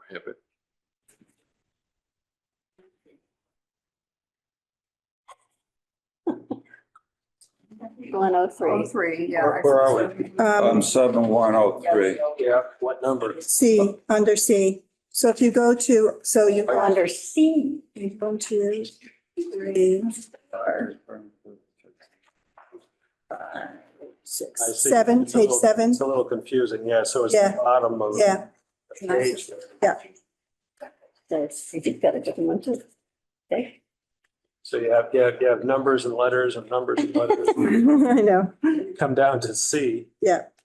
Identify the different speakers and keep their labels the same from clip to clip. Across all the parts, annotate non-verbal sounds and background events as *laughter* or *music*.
Speaker 1: prohibit.
Speaker 2: One oh
Speaker 3: Oh,
Speaker 2: three.
Speaker 3: three, yeah.
Speaker 4: Where- where are
Speaker 5: Um,
Speaker 4: Um, seven one oh three.
Speaker 6: Yeah, what number?
Speaker 5: C, under C. So if you go to, so you go under,
Speaker 2: Under C.
Speaker 5: you go to three,
Speaker 2: five,
Speaker 5: six,
Speaker 6: I see.
Speaker 5: seven,
Speaker 6: It's a
Speaker 5: page
Speaker 6: little-
Speaker 5: seven.
Speaker 6: It's a little confusing, yeah, so it's the
Speaker 5: Yeah.
Speaker 6: bottom of.
Speaker 5: Yeah.
Speaker 6: the page there.
Speaker 2: That's, you've got a different one too. Okay.
Speaker 6: So you have, you have, you have numbers and letters and numbers and letters,
Speaker 5: *laughs* I *laughs* know.
Speaker 6: come down to C.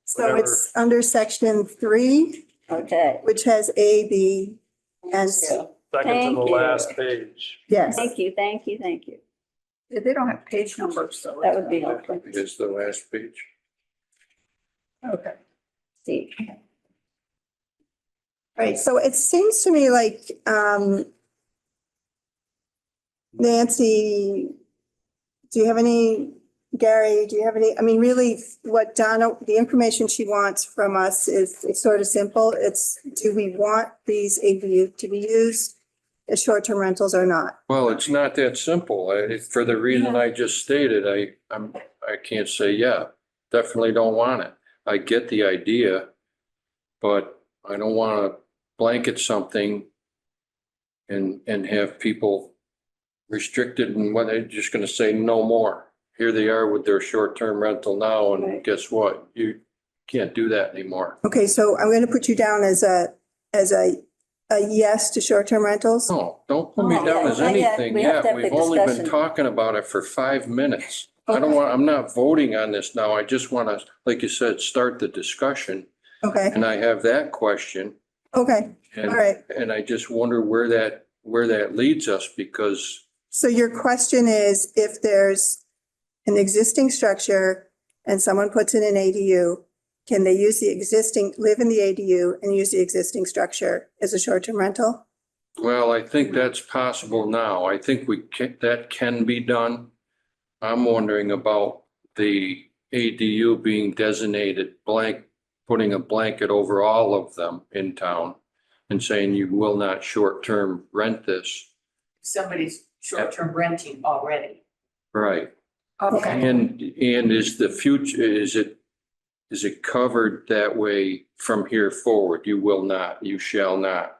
Speaker 5: So it's under section three,
Speaker 2: Okay.
Speaker 5: which has A, B, and C.
Speaker 6: Second to
Speaker 2: Thank
Speaker 6: the
Speaker 2: you.
Speaker 6: last page.
Speaker 5: Yes.
Speaker 2: Thank you, thank you, thank you.
Speaker 3: Yeah, They don't have page numbers, so.
Speaker 2: That would be
Speaker 3: it's-
Speaker 2: helpful.
Speaker 1: Is the last page.
Speaker 3: Okay.
Speaker 2: C.
Speaker 5: Right, so it seems to me like, um, Nancy, do you have any, Gary, do you have any, I mean, really, what Donna, the information she wants from us is, it's sort of simple. It's, do we want these ADU to be used as short-term rentals or not?
Speaker 1: Well, it's not that simple. I, for the reason I just stated, I, I'm, I can't say, yeah, definitely don't want it. I get the idea, but I don't want to blanket something and, and have people restricted and what, they're just going to say no more. Here they are with their short-term rental now, and
Speaker 2: Right.
Speaker 1: guess what? You can't do that anymore.
Speaker 5: Okay, so I'm going to put you down as a, as a, a yes to short-term rentals.
Speaker 1: No, don't put me
Speaker 2: Oh,
Speaker 1: down
Speaker 2: yeah,
Speaker 1: as
Speaker 2: not yet.
Speaker 1: anything
Speaker 2: We have
Speaker 1: yet.
Speaker 2: to have
Speaker 1: We've
Speaker 2: the
Speaker 1: only been
Speaker 2: discussion.
Speaker 1: talking about it for five minutes. I don't
Speaker 5: Okay.
Speaker 1: want, I'm not voting on this now. I just want to, like you said, start the discussion.
Speaker 5: Okay,
Speaker 1: And I have that question
Speaker 5: okay, all
Speaker 1: and,
Speaker 5: right.
Speaker 1: and I just wonder where that, where that leads us because
Speaker 5: So your question is if there's an existing structure and someone puts in an ADU, can they use the existing, live in the ADU and use the existing structure as a short-term rental?
Speaker 1: Well, I think that's possible now. I think we can, that can be done. I'm wondering about the ADU being designated blank, putting a blanket over all of them in town and saying you will not short-term rent this.
Speaker 7: somebody's short-term renting already.
Speaker 1: Right.
Speaker 3: Okay.
Speaker 1: And, and is the future, is it, is it covered that way from here forward? You will not, you shall not.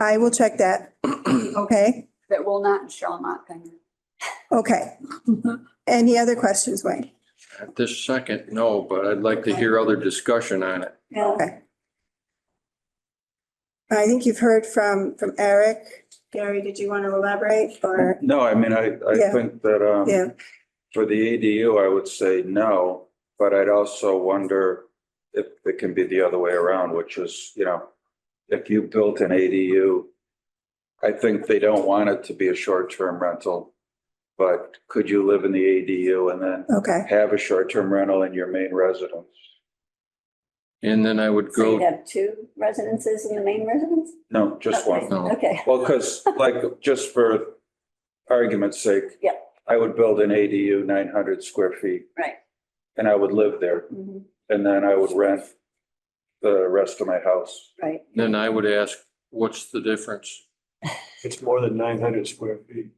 Speaker 5: I will check *clears throat* that. Okay,
Speaker 3: That will not and shall not then.
Speaker 5: okay. Mm-hmm. Any other questions, Wayne?
Speaker 1: At this second, no, but I'd like to hear other discussion on it.
Speaker 2: Yeah.
Speaker 5: Okay. I think you've heard from, from Eric. Gary, did you want to elaborate or?
Speaker 4: No, I mean, I, I
Speaker 5: Yeah.
Speaker 4: think that, um,
Speaker 5: Yeah,
Speaker 4: for the ADU, I would say no, but I'd also wonder if it can be the other way around, which is, you know, if you built an ADU, I think they don't want it to be a short-term rental, but could you live in the ADU and then
Speaker 5: okay,
Speaker 4: have a short-term rental in your main residence?
Speaker 1: And then I would
Speaker 2: So you
Speaker 1: go,
Speaker 2: have two residences in the main residence?
Speaker 4: No, just one.
Speaker 1: No.
Speaker 2: Okay,
Speaker 4: Well, because like, just for argument's sake.
Speaker 2: Yeah.
Speaker 4: I would build an ADU nine hundred square feet.
Speaker 2: Right.
Speaker 4: And I would live there
Speaker 3: Mm-hmm,
Speaker 2: Mhm.
Speaker 4: and then I would rent the rest of my house.
Speaker 2: right.
Speaker 1: then I would ask, what's the difference?
Speaker 6: It's more than nine hundred square feet.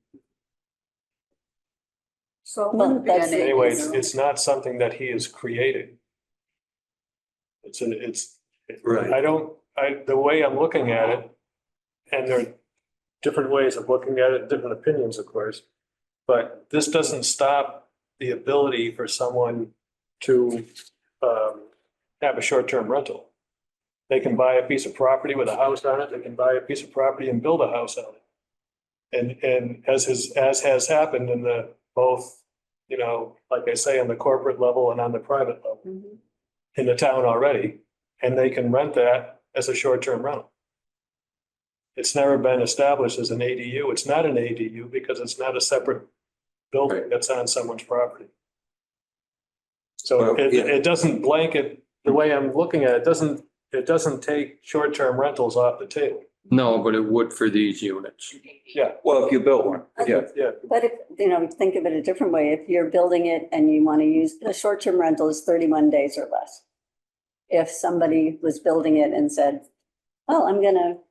Speaker 3: So it
Speaker 2: Well,
Speaker 3: wouldn't be
Speaker 2: that's-
Speaker 3: an ADU.
Speaker 6: Anyway, it's, it's not something that he is creating. It's an, it's,
Speaker 4: Right.
Speaker 6: I don't, I, the way I'm looking at it, and there are different ways of looking at it, different opinions, of course. But this doesn't stop the ability for someone to um, have a short-term rental. They can buy a piece of property with a house on it, they can buy a piece of property and build a house on it. And, and as has, as has happened in the both, you know, like I say, on the corporate level and on the private level
Speaker 3: Mm-hmm.
Speaker 2: Mhm.
Speaker 6: in the town already, and they can rent that as a short-term rental. It's never been established as an ADU. It's not an ADU because it's not a separate building
Speaker 1: Right.
Speaker 6: that's on someone's property. So
Speaker 4: Well,
Speaker 6: it,
Speaker 4: yeah.
Speaker 6: it doesn't blanket, the way I'm looking at it, doesn't, it doesn't take short-term rentals off the table.
Speaker 1: No, but it would for these units.
Speaker 6: Yeah,
Speaker 4: Well, if you built one, yeah.
Speaker 6: yeah.
Speaker 2: But if, you know, think of it a different way, if you're building it and you want to use, a short-term rental is thirty-one days or less. If somebody was building it and said, oh, I'm gonna